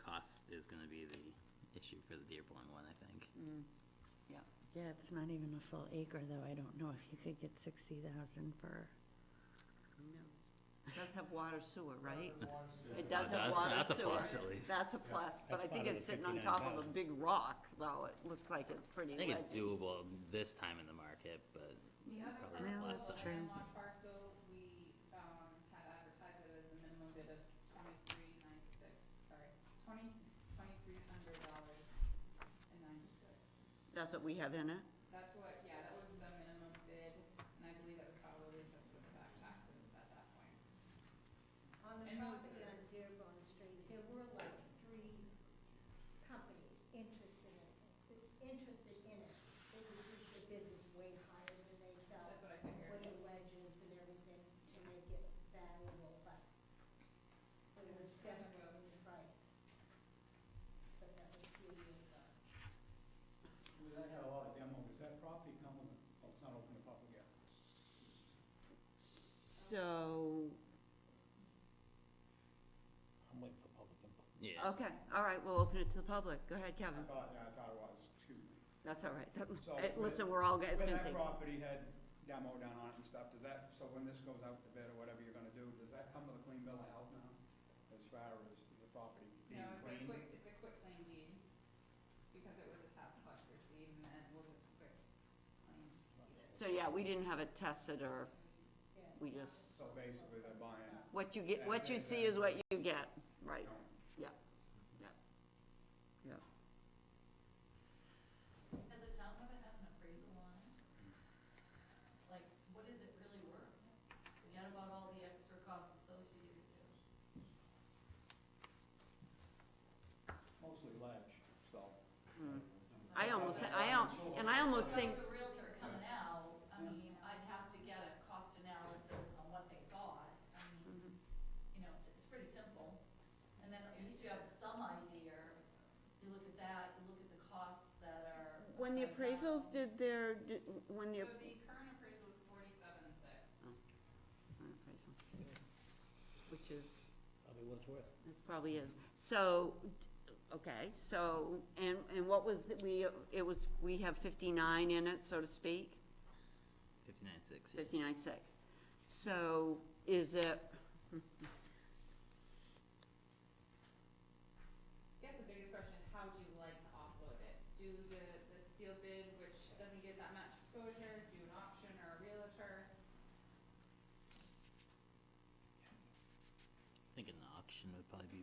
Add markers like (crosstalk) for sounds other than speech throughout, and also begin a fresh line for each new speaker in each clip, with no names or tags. cost is gonna be the issue for the Dearborn one, I think.
yeah.
Yeah, it's not even a full acre, though. I don't know if you could get sixty thousand for,
It does have water sewer, right? It
Now,
does
Uh, that's-
have water
That's a
sewer.
plus, at least. I
That's a plus, but
that's
I think
part of
it's
the
sitting on top of a
59,000.
big rock, though. It looks like it's pretty
think it's
legend.
doable this time in the market, but
The other
Probably
was
parcel,
last
the
time.
landlocked parcel, we, um, had advertised it as a minimum bid of twenty-three ninety-six, sorry, twenty, twenty-three hundred dollars and ninety-six.
That's what we have in it?
That's what, yeah, that was the minimum bid, and I believe that was probably just with the back taxes at that point.
On the
And those
property
are-
on Dearborn Street, there were like three companies interested in it, interested in it. It was just the bid was way higher than they felt,
That's what I
with
figured.
the wedges and everything to make it valuable, but but it was definitely the price. But that was a few years ago.
Well, That had a lot of demo, does that property come with, oh, it's not open to public yet.
So,
I'm waiting for public input.
yeah.
okay, all right, we'll open it to the public. Go ahead,
I
Kevin.
thought, yeah, I thought it was, excuse me.
That's all right. That- (laughs)
So,
eh,
when-
Listen, we're all guys
When
gonna
that
take.
property had demo down on it and stuff, does that, so when this goes out to bid or whatever you're gonna do, does that come with a clean bill of health now? As far as the property being
No, it's a
clean?
quick, it's a quick claim deed, because it was a tax collector's deed, and then we'll just quick claim deed it.
So, yeah, we didn't have it tested or,
Yeah.
we just,
So basically, they're buying,
what you get, what you see is what you get, right?
you know,
Yeah, yeah, yeah.
Has the town ever had an appraisal on it? Like, what is it really worth? Forget about all the extra costs associated to it.
mostly ledge, so.
Mm-hmm. I almost, I al, and I almost
If I
think,
was a realtor coming out, I mean, I'd have to get a cost analysis on what they got. I mean, you know, it's it's pretty simple. And then at least you have some idea. You look at that, you look at the costs that are.
when the appraisals
did.
did their, did- when the.
So the current appraisal is forty-seven six.
Mm-hmm. current appraisal, Which is,
probably what it's worth.
this probably is, so, okay, so, and, and what was, the- we, it was, we have fifty-nine in it, so to speak,
Fifty-nine, six, yeah.
fifty-nine six. So, is it,
I guess the biggest question is how would you like to offload it? Do the, the seal bid, which doesn't get that much exposure, do an auction or a realtor?
I think an auction would probably be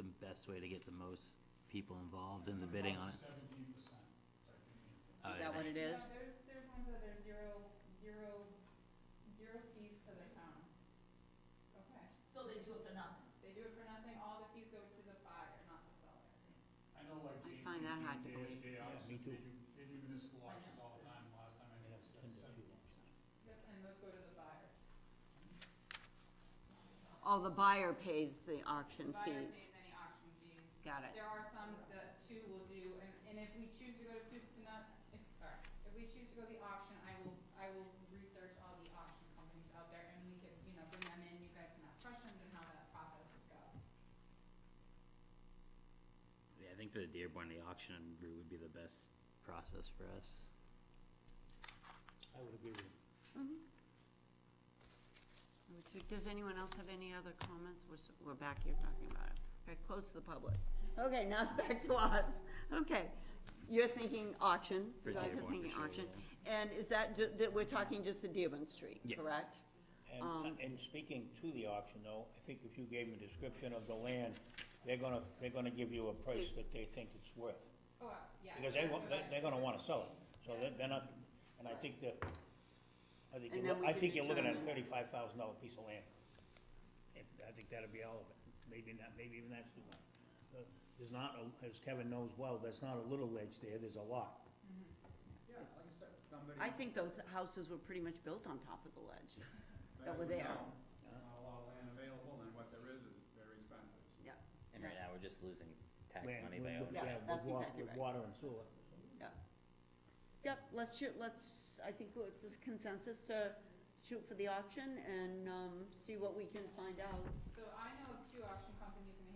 the best way to get the most people involved in the bidding on it.
Seventeen percent.
Oh,
is
yeah.
that what it
No,
is?
There's, there's ones that there's zero, zero, zero fees to the town. Okay,
So they do it for nothing.
they do it for nothing, all the fees go to the buyer, not the seller.
I know like
I
J
find that hard to
J
believe.
J
me
auctions, they do,
too.
they do municipal auctions all the time, last time I
I
did
have
it,
tons of
seventy
few
percent.
Yep, and those go to the buyer.
Oh, the buyer pays the auction
Buyer
fees,
pays any auction fees.
got it,
There are some that two will do, and, and if we choose to go to soup to nut, if, sorry, if we choose to go the auction, I will, I will research all the auction companies out there, and we can, you know, bring them in, you guys can ask questions and how that process would go.
Yeah, I think for the Dearborn, the auction route would be the best process for us.
I would agree with him.
Number two, Does anyone else have any other comments? We're, s- we're back here talking about it. Okay, close to the public. Okay, now it's back to us. Okay, you're thinking auction,
For
you guys are
Dearborn, for
thinking
sure,
auction. And is that, ju- that we're talking just the Dearborn Street,
Yes.
correct? Um,
And, uh, and speaking to the auction though, I think if you gave them a description of the land, they're gonna, they're gonna give you a price that they think it's worth.
Oh, abs- yeah.
Because they,
that's
wa-
what
they-
I-
they're gonna wanna sell it, so they're, they're not, and I think that, I think,
And
you're
then
loo-
we
I
can
think you're looking at a
determine-
thirty-five thousand dollar piece of land. And I think that'd be all of it, maybe not, maybe even that's too much. But There's not, a- as Kevin knows well, there's not a little ledge there, there's a lot.
Yeah, like I said, somebody.
I think those houses were pretty much built on top of the ledge. that were
would
there.
know. There's Not a lot of land available, and what there is is very expensive.
Yeah,
And right now, we're just losing tax
Land-
money
with-
by over.
Yeah,
with- yeah, with
that's
wa-
exactly
With
right.
water and sewer.
yeah. Yep, let's shoot, let's, I think it's this consensus uh, to shoot for the auction and, um, see what we can find out.
So I know of two auction companies in